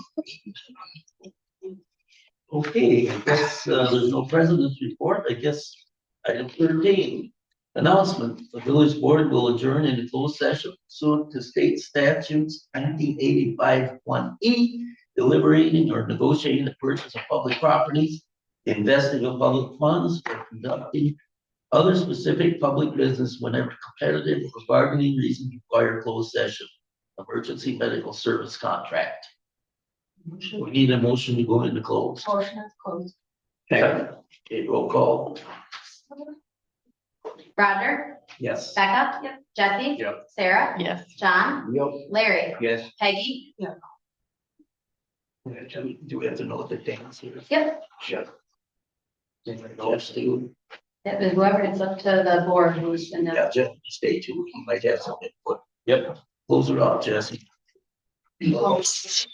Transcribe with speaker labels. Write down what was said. Speaker 1: Okay, I guess, uh, there's no president's report, I guess, item thirteen. Announcement, the village board will adjourn in a closed session pursuant to state statutes nineteen eighty-five one E. Deliberating or negotiating the purchase of public properties, investing of public funds, or conducting. Other specific public business whenever competitive or bargaining reason require closed session. Emergency medical service contract. We need a motion to go into closed.
Speaker 2: Motion is closed.
Speaker 1: Second. Okay, roll call.
Speaker 3: Roger,
Speaker 1: Yes.
Speaker 3: Becca. Jesse.
Speaker 1: Yep.
Speaker 3: Sarah.
Speaker 2: Yes.
Speaker 3: John.
Speaker 1: Yep.
Speaker 3: Larry.
Speaker 1: Yes.
Speaker 3: Peggy.
Speaker 1: Do we have to know the dance here?
Speaker 3: Yep,
Speaker 1: Sure. Jeff, too.
Speaker 3: that was whoever, it's up to the board who's in the.
Speaker 1: Yeah, Jeff, stay tuned. He might have something. Yep. Close it off, Jesse.